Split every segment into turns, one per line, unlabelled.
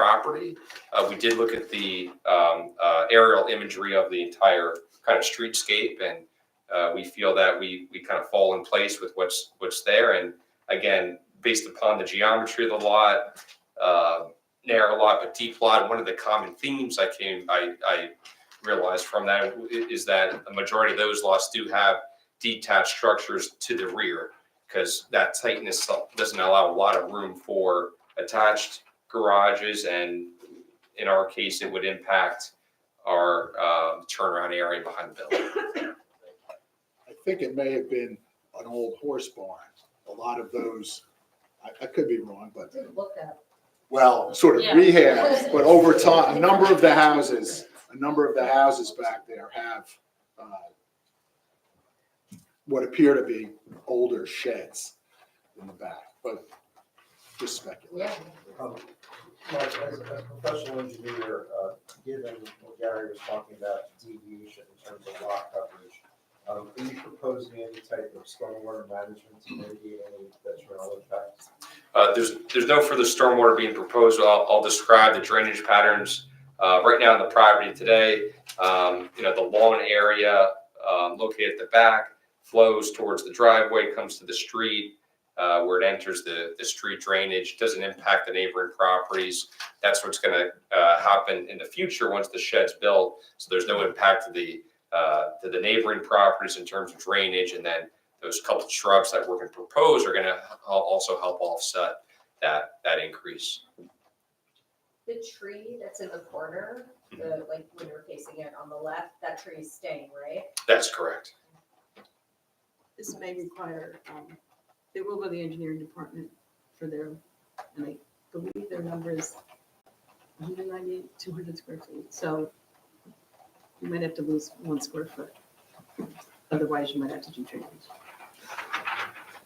property. Uh, we did look at the, um, uh, aerial imagery of the entire kind of streetscape and, uh, we feel that we, we kind of fall in place with what's, what's there. And again, based upon the geometry of the lot, uh, narrow lot, but deep lot, one of the common themes I came, I, I realized from that i- is that a majority of those lots do have detached structures to the rear because that tightness doesn't allow a lot of room for attached garages and in our case, it would impact our um, turnaround area behind the building.
I think it may have been an old horse barn. A lot of those, I, I could be wrong, but,
Didn't look up.
well, sort of
Yeah.
rehab. But over time, a number of the houses, a number of the houses back there have, uh, what appear to be older sheds in the back, but just
Yeah.
speculation.
Um, Mike, as a professional engineer, uh, given what Gary was talking about deviation in terms of lot coverage, um, are you proposing any type of stormwater management to mitigate any detrimental impacts?
Uh, There's, there's no further stormwater being proposed. I'll, I'll describe the drainage patterns. uh, Right now in the property today, um, you know, the lawn area um, located at the back flows towards the driveway, comes to the street uh, where it enters the, the street drainage, doesn't impact the neighboring properties. That's what's going to happen in the future once the shed's built. So there's no impact to the, uh, to the neighboring properties in terms of drainage. And then those couple shrubs that we're going to propose are going to also help offset that, that increase.
The tree that's in the corner,
Mhm.
the, like, when you're facing it on the left, that tree is staying, right?
That's correct.
This may require, um, it will go to the engineering department for their, and I believe their number is 198, 200 square feet. So you might have to lose one square foot. Otherwise, you might have to do drainage.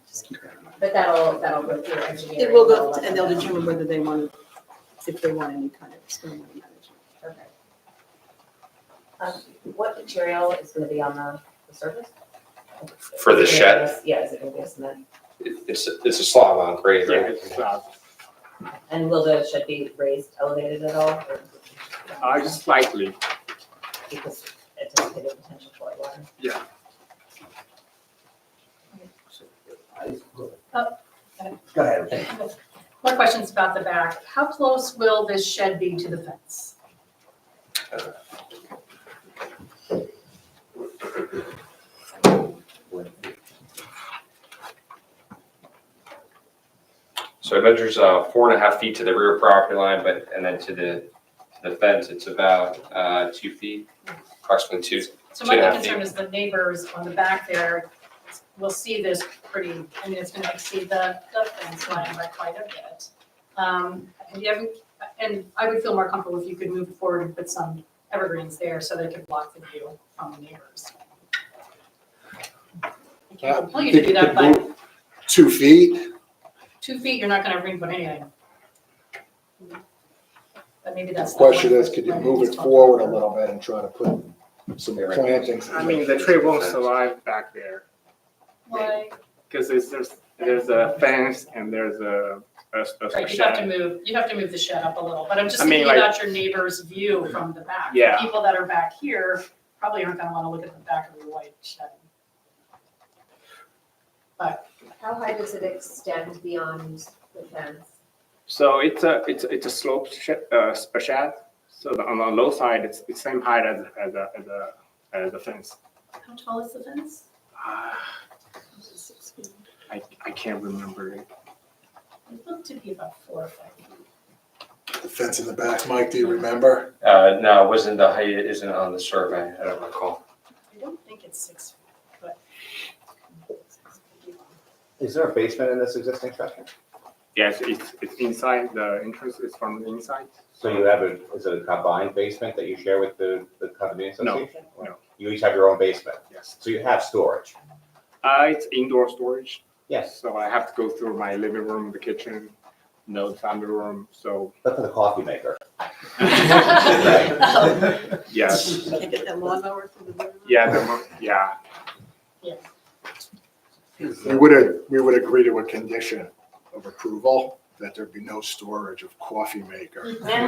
Just keep that in mind.
But that'll, that'll go through engineering.
It will go,
they'll let
and they'll
them know.
determine whether they want, to- if they want any kind of stormwater management.
Okay. Um, What material is gonna be on the, the surface?
For the
Is it
shed?
gonna be- Yeah, is it gonna be a cement?
It's, it's a slab on grade, right?
Yeah.
And will the shed be raised, elevated at all? or-
Uh, just slightly,
Because it's a potential for it, water.
yeah.
Go ahead.
More questions about the back. How close will this shed be to the fence?
So it measures uh, four and a half feet to the rear property line, but, and then to the, to the fence, it's about uh, two feet, approximately two.
So my
Yeah.
concern is the neighbors on the back there will see this pretty, I mean, it's gonna exceed the, the fence line by quite a bit. Um, and you haven't, and I would feel more comfortable if you could move forward and put some evergreens there so they could block the view from the neighbors. I can't
Uh,
compel you to do that, but
Two feet,
two feet, you're not gonna bring but anything. But maybe
the
that's. not what
question is, could you move it forward a little bit and try to put some plantings?
I mean, the tree won't survive back there
Why,
because there's, there's, there's a fence and there's a, a, a
right, you'd have to
shed.
move, you'd have to move the shed up a little, but I'm just
I mean,
thinking
like-
about your neighbor's view from the back. The
Yeah.
People that are back here probably aren't gonna wanna look at the back of your white shed.
How high does it extend beyond the fence?
So it's a, it's, a- it's a sloped shed, uh, s- a shed. So the- on the low side, it's the same height as, as a, as a, as a fence.
How tall is the fence?
Ah, I, I can't remember it.
It looked to be about four or five feet.
The fence in the back, Mike, do you remember?
Uh, No, it wasn't the height, it isn't on the survey, I don't recall.
I don't think it's six feet, but.
Is there a basement in this existing structure?
Yes, it's, it's inside, the entrance is from the inside.
So you have a, is it a combined basement that you share with the, the condominium
No,
association?
no.
You each have your own basement,
Yes.
so you have storage?
Uh, it's indoor storage.
Yes.
So I have to go through my living room, the kitchen, no family room, so
But for the coffee maker?
Um,
yes,
Can I get that lawnmower through the window?
yeah, the, mo- yeah.
We would, a- we would agree to a condition of approval that there be no storage of coffee maker.
And